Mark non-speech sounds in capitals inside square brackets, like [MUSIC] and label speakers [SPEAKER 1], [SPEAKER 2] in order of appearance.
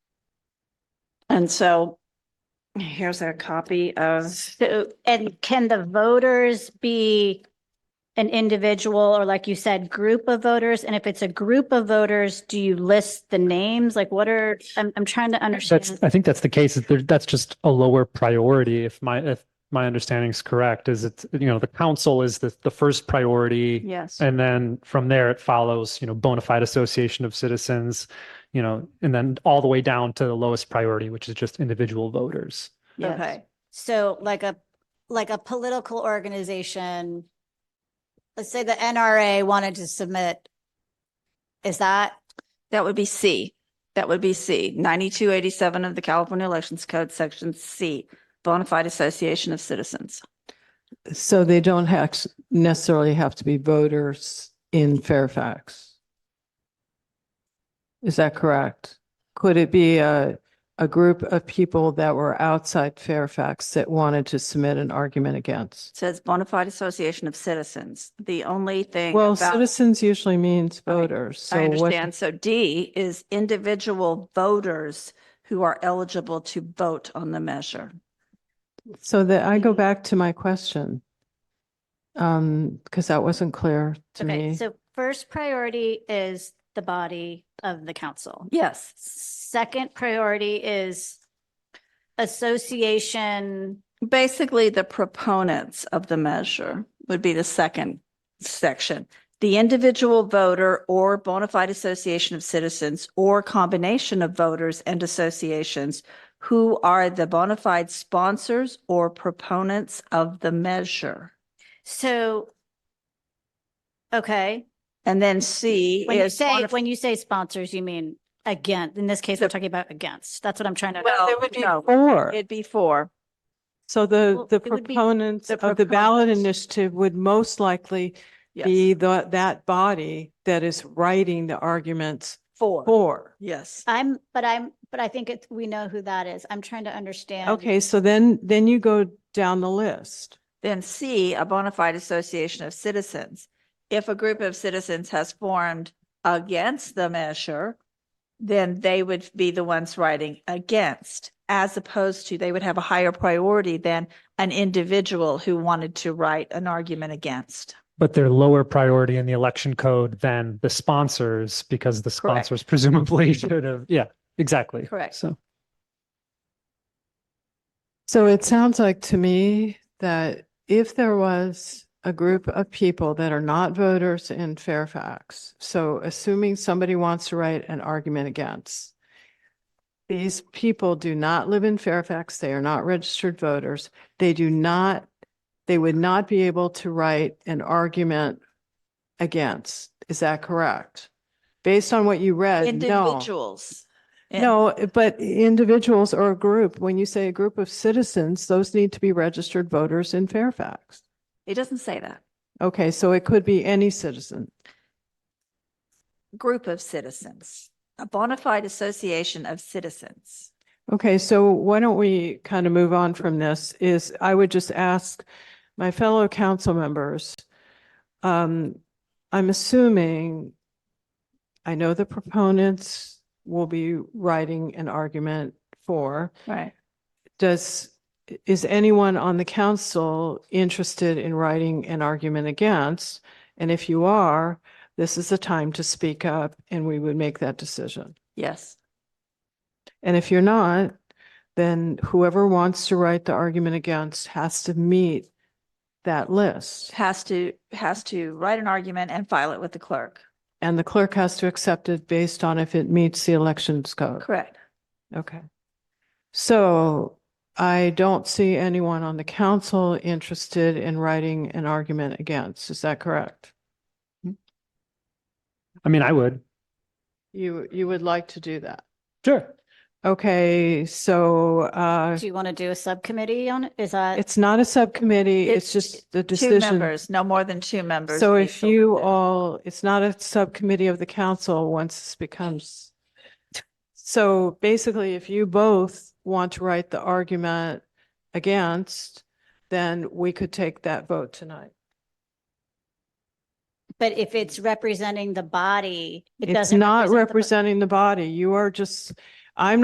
[SPEAKER 1] And so here's a copy of,
[SPEAKER 2] So, and can the voters be an individual or like you said, group of voters? And if it's a group of voters, do you list the names? Like what are, I'm, I'm trying to
[SPEAKER 3] That's,
[SPEAKER 2] understand.
[SPEAKER 3] I think that's the case. is there- That's just a lower priority. If my, if my understanding is correct, is it's you know, the council is the, the first priority.
[SPEAKER 1] yes.
[SPEAKER 3] And then from there, it follows, you know, bona fide association of citizens, you know, and then all the way down to the lowest priority, which is just individual voters.
[SPEAKER 2] Yes.
[SPEAKER 1] Okay,
[SPEAKER 4] So like a, like a political organization, let's say the NRA wanted to submit, is that,
[SPEAKER 1] that would be C. That would be C, ninety-two eighty-seven of the California Elections Code, section C, bona fide association of citizens.
[SPEAKER 5] So they don't hac- necessarily have to be voters in Fairfax. Is that correct? Could it be a, a group of people that were outside Fairfax that wanted to submit an argument against?
[SPEAKER 1] It Says bona fide association of citizens. The only thing
[SPEAKER 5] Well,
[SPEAKER 1] about,
[SPEAKER 5] citizens usually means
[SPEAKER 1] I-
[SPEAKER 5] voters.
[SPEAKER 1] I
[SPEAKER 5] so what-
[SPEAKER 1] understand. So D is individual voters who are eligible to vote on the measure.
[SPEAKER 5] So that I go back to my question. Um, because that wasn't clear to
[SPEAKER 2] Okay,
[SPEAKER 5] me.
[SPEAKER 2] so first priority is the body of the council.
[SPEAKER 1] Yes.
[SPEAKER 2] Second priority is association.
[SPEAKER 1] Basically, the proponents of the measure would be the second section. The individual voter or bona fide association of citizens or combination of voters and associations who are the bona fide sponsors or proponents of the measure.
[SPEAKER 2] So, okay.
[SPEAKER 1] And then C
[SPEAKER 2] When you
[SPEAKER 1] is.
[SPEAKER 2] say,
[SPEAKER 1] bona-
[SPEAKER 2] when you say sponsors, you mean again, in this case, we're talking about against. That's what I'm trying to.
[SPEAKER 1] Well,
[SPEAKER 5] There would be
[SPEAKER 1] no,
[SPEAKER 5] four.
[SPEAKER 1] It'd be four.
[SPEAKER 5] So the,
[SPEAKER 2] Well,
[SPEAKER 5] the
[SPEAKER 2] it would be
[SPEAKER 5] proponents
[SPEAKER 1] the
[SPEAKER 5] of the ballot
[SPEAKER 1] proponents.
[SPEAKER 5] initiative would most likely
[SPEAKER 1] Yes,
[SPEAKER 5] be the, that body that is writing the arguments
[SPEAKER 1] four.
[SPEAKER 5] for.
[SPEAKER 1] Yes.
[SPEAKER 2] I'm, but I'm, but I think it's, we know who that is. I'm trying to understand.
[SPEAKER 5] Okay, so then, then you go down the list.
[SPEAKER 1] Then C, a bona fide association of citizens. If a group of citizens has formed against the measure, then they would be the ones writing against, as opposed to they would have a higher priority than an individual who wanted to write an argument against.
[SPEAKER 3] But they're lower priority in the election code than the sponsors because the
[SPEAKER 1] Correct.
[SPEAKER 3] sponsors presumably [LAUGHS] should have, yeah, exactly.
[SPEAKER 1] Correct.
[SPEAKER 3] So.
[SPEAKER 5] So it sounds like to me that if there was a group of people that are not voters in Fairfax, so assuming somebody wants to write an argument against, these people do not live in Fairfax, they are not registered voters, they do not, they would not be able to write an argument against. Is that correct? Based on what you read, Uh, no.
[SPEAKER 1] Individuals. And-
[SPEAKER 5] No, but individuals or a group, when you say a group of citizens, those need to be registered voters in Fairfax.
[SPEAKER 1] It doesn't say that.
[SPEAKER 5] Okay, so it could be any citizen.
[SPEAKER 1] Group of citizens, a bona fide association of citizens.
[SPEAKER 5] Okay, so why don't we kind of move on from this is I would just ask my fellow council members. Um, I'm assuming, I know the proponents will be writing an argument for.
[SPEAKER 1] Right.
[SPEAKER 5] Does, is anyone on the council interested in writing an argument against? And if you are, this is the time to speak up and we would make that decision.
[SPEAKER 1] Yes.
[SPEAKER 5] And if you're not, then whoever wants to write the argument against has to meet that list.
[SPEAKER 1] Has to, has to write an argument and file it with the clerk.
[SPEAKER 5] And the clerk has to accept it based on if it meets the elections code.
[SPEAKER 1] Correct.
[SPEAKER 5] Okay. So I don't see anyone on the council interested in writing an argument against. Is that correct?
[SPEAKER 3] I mean, I would,
[SPEAKER 5] You, you would like to do that?
[SPEAKER 3] sure.
[SPEAKER 5] Okay, so uh,
[SPEAKER 2] Do you want to do a subcommittee on it? Is that?
[SPEAKER 5] it's not a subcommittee,
[SPEAKER 1] It's
[SPEAKER 5] it's just the
[SPEAKER 1] Two
[SPEAKER 5] decision.
[SPEAKER 1] members, no more than two members.
[SPEAKER 5] So
[SPEAKER 1] be
[SPEAKER 5] if you
[SPEAKER 1] selected.
[SPEAKER 5] all, it's not a subcommittee of the council once this becomes. So basically, if you both want to write the argument against, then we could take that vote tonight.
[SPEAKER 2] But if it's representing the body, it
[SPEAKER 5] It's
[SPEAKER 2] doesn't.
[SPEAKER 5] not
[SPEAKER 2] represent the bo-
[SPEAKER 5] representing the body. You are just, I'm